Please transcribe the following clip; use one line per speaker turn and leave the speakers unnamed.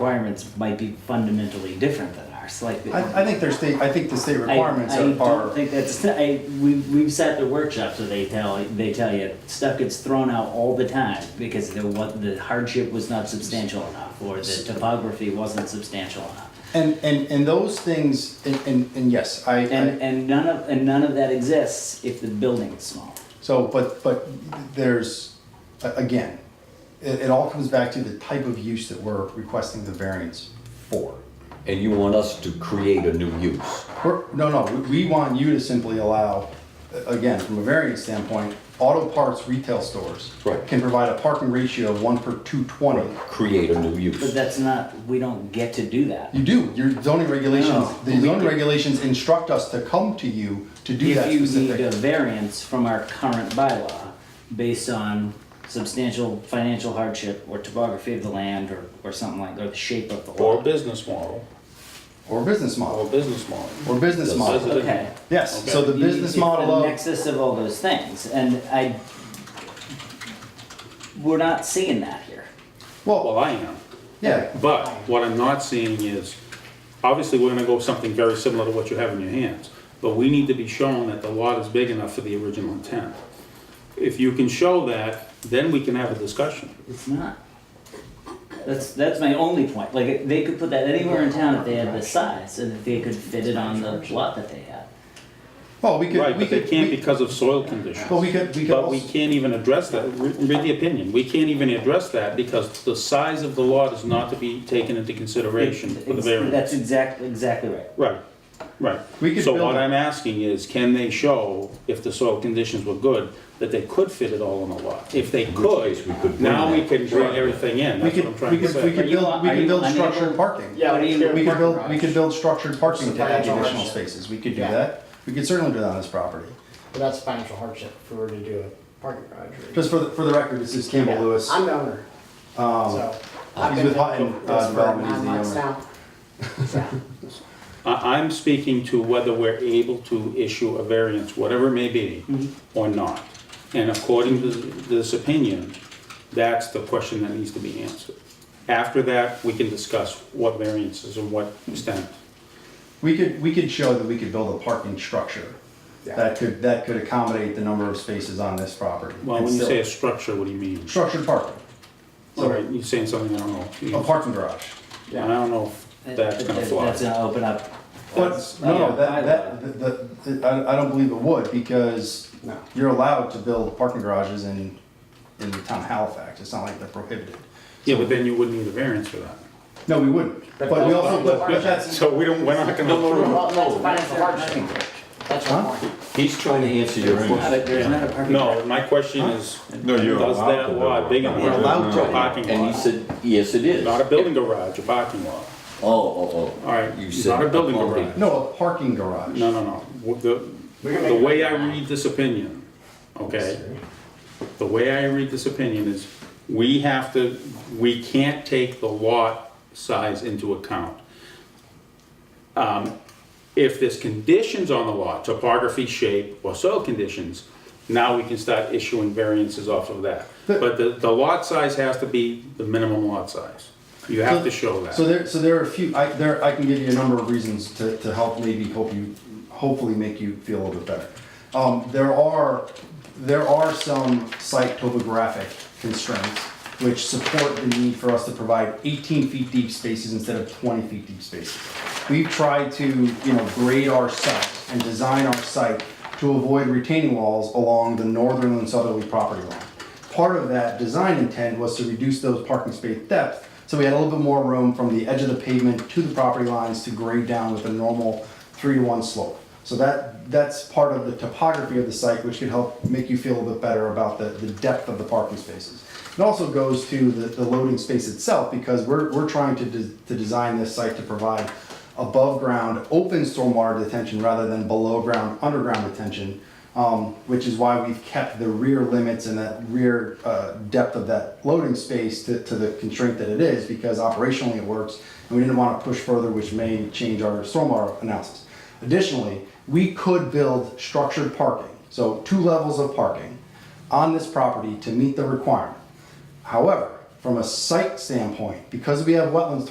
requirements might be fundamentally different than ours, like.
I, I think their state, I think the state
I-
requirements
I
are,
don't
are,
think that's, I, we, we've sat the workshops where they tell, they tell you, stuff gets thrown out all the time because the, what, the hardship was not substantial enough, or the topography wasn't substantial enough.
and, and, and those things, and, and, and yes, I,
And,
I,
and none of, and none of that exists if the building is small.
so, but, but there's, a- again, it, it all comes back to the type of use that we're requesting the variance for.
And you want us to create a new use?
We're, no, no, we- we want you to simply allow, a- again, from a variance standpoint, auto parts retail stores
Right.
can provide a parking ratio of one per two twenty.
Create a new
But
use?
that's not, we don't get to do that.
You do, your zoning regulations,
No,
the
we
zoning
do.
regulations instruct us to come to you to do that
If you need a
specific.
variance from our current bylaw based on substantial financial hardship or topography of the land or, or something like, or the shape of the
Or
lot.
business model,
Or business
or
model,
business model.
or business
Yes.
model,
Okay.
yes, so the
You-
business
it's
model
The
of,
nexus of all those things, and I, we're not seeing that here.
well,
Well, I am.
yeah,
But what I'm not seeing is, obviously, we're gonna go with something very similar to what you have in your hands. But we need to be shown that the lot is big enough for the original intent. If you can show that, then we can have a discussion.
It's not. That's, that's my only point, like, they could put that anywhere in town if they had the size, and if they could fit it on the lot that they had.
well, we
Right,
could, we
but they
could,
can't
we-
because of soil conditions.
but we could, we could
But we
also,
can't even address that, Re- read the opinion, we can't even address that because the size of the lot is not to be taken into consideration for the
It's-
variance.
That's exactly, exactly right.
Right, right.
We could
So
build
what
it.
I'm asking is, can they show, if the soil conditions were good, that they could fit it all on the lot? If they
case we could
could,
bring
now we
that.
can bring everything in,
we
that's what I'm
could,
trying
we
to
could, we
say.
could build, we
Are
could
you
build
unable-
structured parking.
Yeah,
What do
we
you-
can
We could
parking
build, we
garage.
could build structured parking to add
Financial
additional
hardship.
spaces, we could do
Yeah.
that, we could certainly do that on this property.
But that's financial hardship if we were to do a parking garage. or-
Just for the, for the record, this is Campbell
Yeah,
Lewis. Um,
I'm the owner. So. I've
he's
been
with Hutton,
doing
uh,
this for
Development, he's
nine
the
months
owner.
now. So,
I, I'm speaking to whether we're able to issue a variance, whatever it may be,
Mm-hmm.
or not. And according to this opinion, that's the question that needs to be answered. After that, we can discuss what variances and what extent.
We could, we could show that we could build a parking structure
Yeah.
that could, that could accommodate the number of spaces on this property.
Well,
And
when you
still-
say a structure, what do you mean?
Structured parking,
Sorry, you're saying something I don't know.
a parking garage.
Yeah, I don't know if that's gonna
That-
fly.
That's gonna open up.
But, no, that, that, that, that- I, I don't believe it would, because
No.
you're allowed to build parking garages in, in the town of Halifax, it's not like they're prohibited.
Yeah, but then you wouldn't need a variance for that.
No, we wouldn't,
But
but we
that's
also,
not-
but but that's,
So we don't, we're not gonna approve.
well, that's financial hardship. That's my
Huh?
point.
He's trying to answer your
Not a- There's not a parking.
No, my question is,
No, you're
does
allowed to
that
build
lot
a
big enough?
parking
We're allowed
for a
to.
Parking
And he
lot,
said, yes, it is.
not a
Oh,
building garage, a parking lot.
oh, oh.
All right,
You
not
said
a building
parking.
garage.
no, a parking garage.
No, no, no. W-
We can
The,
make
the
it
way I
happen.
read this opinion, okay? The way I read this opinion is, we have to, we can't take the lot size into account. Um, If there's conditions on the lot, topography, shape, or soil conditions, now we can start issuing variances off of that. But the, the lot size has to be the minimum lot size. You have to show that.
So there, so there are a few, I, there, I can give you a number of reasons to, to help maybe help you, hopefully make you feel a little bit better. Um, there are, there are some site topographic constraints which support the need for us to provide eighteen feet deep spaces instead of twenty feet deep spaces. We've tried to, you know, grade our site and design our site to avoid retaining walls along the northern and southerly property line. Part of that design intent was to reduce those parking space depth, so we had a little bit more room from the edge of the pavement to the property lines to grade down with a normal three to one slope. So that, that's part of the topography of the site, which could help make you feel a bit better about the, the depth of the parking spaces. It also goes to the, the loading space itself, because we're, we're trying to, de- to design this site to provide above-ground open stormwater detention rather than below-ground underground detention, um, which is why we've kept the rear limits and that rear uh, depth of that loading space to, to the constraint that it is, because operationally it works, and we didn't want to push further, which may change our stormwater analysis. Additionally, we could build structured parking, so two levels of parking, on this property to meet the requirement. However, from a site standpoint, because we have wetlands